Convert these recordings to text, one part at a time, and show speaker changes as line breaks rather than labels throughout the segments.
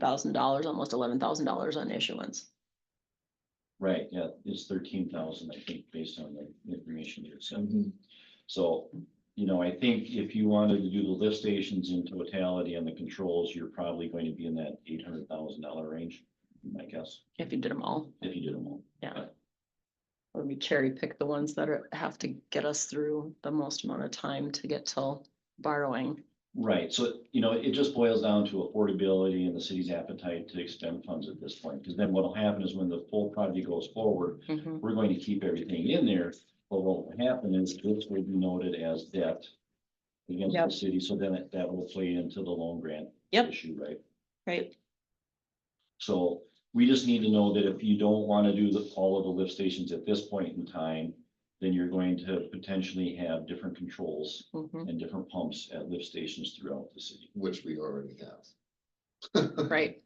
thousand dollars, almost eleven thousand dollars on issuance.
Right, yeah, it's thirteen thousand, I think, based on the information you sent. So, you know, I think if you wanted to do the lift stations in totality and the controls, you're probably going to be in that eight hundred thousand dollar range, I guess,
If you did them all,
if you did them all.
or we cherry pick the ones that are, have to get us through the most amount of time to get till borrowing.
Right, so, you know, it just boils down to affordability and the city's appetite to expend funds at this point, because then what'll happen is when the full project goes forward,
Mhm.
we're going to keep everything in there, but what will happen is this will be noted as debt against the
Yep.
city, so then it- that will play into the loan grant
Yep.
issue, right?
Right,
So we just need to know that if you don't want to do the, all of the lift stations at this point in time, then you're going to potentially have different controls
Mhm.
and different pumps at lift stations throughout the city.
which we already have.
right,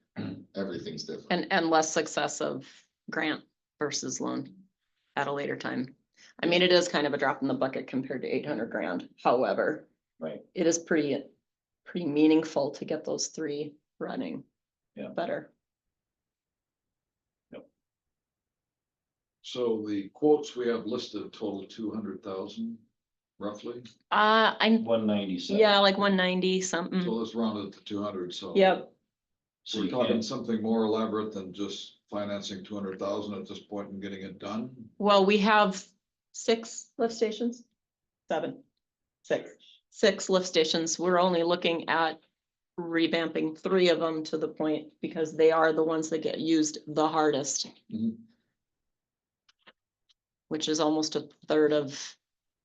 Everything's different.
and, and less success of grant versus loan at a later time. I mean, it is kind of a drop in the bucket compared to eight hundred grand, however.
Right.
It is pretty, pretty meaningful to get those three running.
Yeah.
Better.
So the quotes we have listed a total of two hundred thousand roughly,
Uh, I'm,
One ninety-seven.
yeah, like one ninety something,
so let's round it to two hundred, so.
Hmm. Yep.
So
We're
you
talking
can,
something more elaborate than just financing two hundred thousand at this point and getting it done.
well, we have six lift stations, seven, six, six lift stations, we're only looking at. Revamping three of them to the point, because they are the ones that get used the hardest.
Mhm.
Which is almost a third of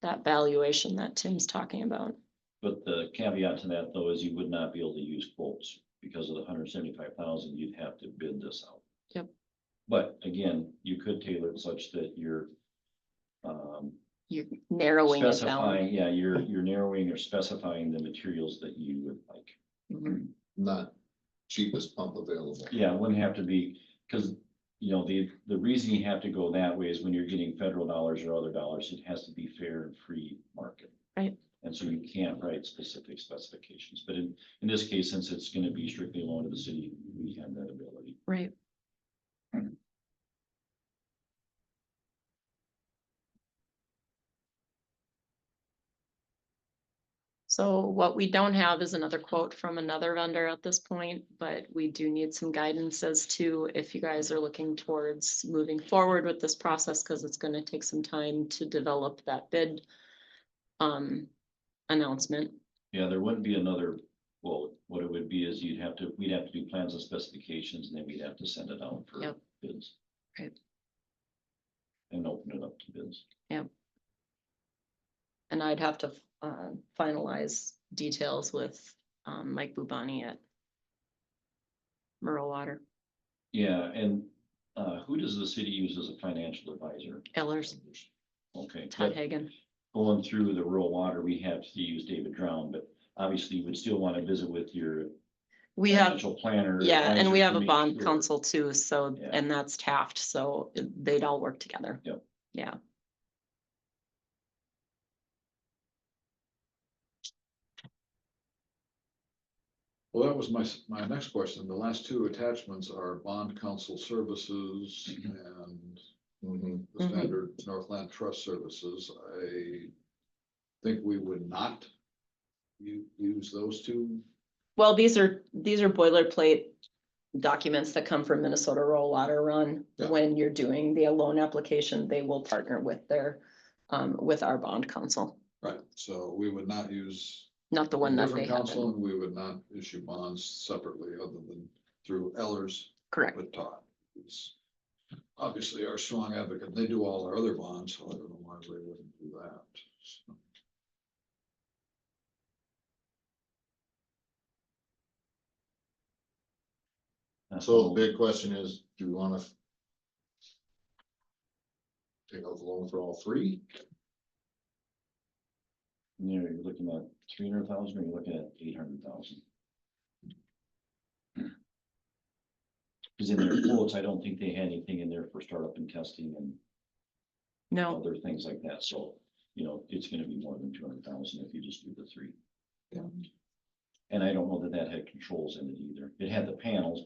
that valuation that Tim's talking about,
but the caveat to that though is you would not be able to use quotes because of the hundred seventy-five thousand, you'd have to bid this out.
Yep.
But again, you could tailor it such that you're um,
you're narrowing it down.
Specifying, yeah, you're, you're narrowing or specifying the materials that you would like.
Mhm.
Not cheapest pump available.
Yeah, it wouldn't have to be, because, you know, the, the reason you have to go that way is when you're getting federal dollars or other dollars, it has to be fair and free market.
Right.
And so you can't write specific specifications, but in, in this case, since it's gonna be strictly loan to the city, we have that ability.
Right, so what we don't have is another quote from another vendor at this point, but we do need some guidance as to if you guys are looking towards moving forward with this process, because it's gonna take some time to develop that bid um, announcement.
Yeah, there wouldn't be another, well, what it would be is you'd have to, we'd have to do plans and specifications, and then we'd have to send it out for
Yep.
bids.
Right.
And open it up to bids.
And I'd have to uh, finalize details with um, Mike Bubani at Murrow Water,
Yeah, and uh, who does the city use as a financial advisor?
Ellers,
Okay,
Todd
but
Hagan.
going through the rural water, we have to use David Drown, but obviously you would still want to visit with your
We have,
financial planner.
yeah, and we
advisor
have
to
a
make
bond
sure.
council too, so,
Yeah.
and that's Taft, so they'd all work together.
Yep.
Yeah.
Well, that was my, s- my next question. The last two attachments are bond council services
Mm-hmm.
and
Mhm.
the
Mhm.
standard Northland Trust Services. I think we would not u- use those two
Well, these are, these are boilerplate documents that come from Minnesota Rural Water Run.
Yeah.
When you're doing the loan application, they will partner with their, um, with our bond council,
Right, so we would not use.
not the one that they
different
have.
counsel,
in-
and We would not issue bonds separately other than through Ellers
Correct.
with Todd. who's Obviously our strong advocate. They do all our other bonds, so I don't know why they wouldn't do that. So,
That's
So the
all.
big question is, do we wanna? Take out the loan for all three?
You know, you're looking at three hundred thousand, or you're looking at eight hundred thousand. Cause in their quotes, I don't think they had anything in there for startup and testing and
No.
other things like that, so, you know, it's gonna be more than two hundred thousand if you just do the three.
Yeah.
And I don't know that that had controls in it either, it had the panels,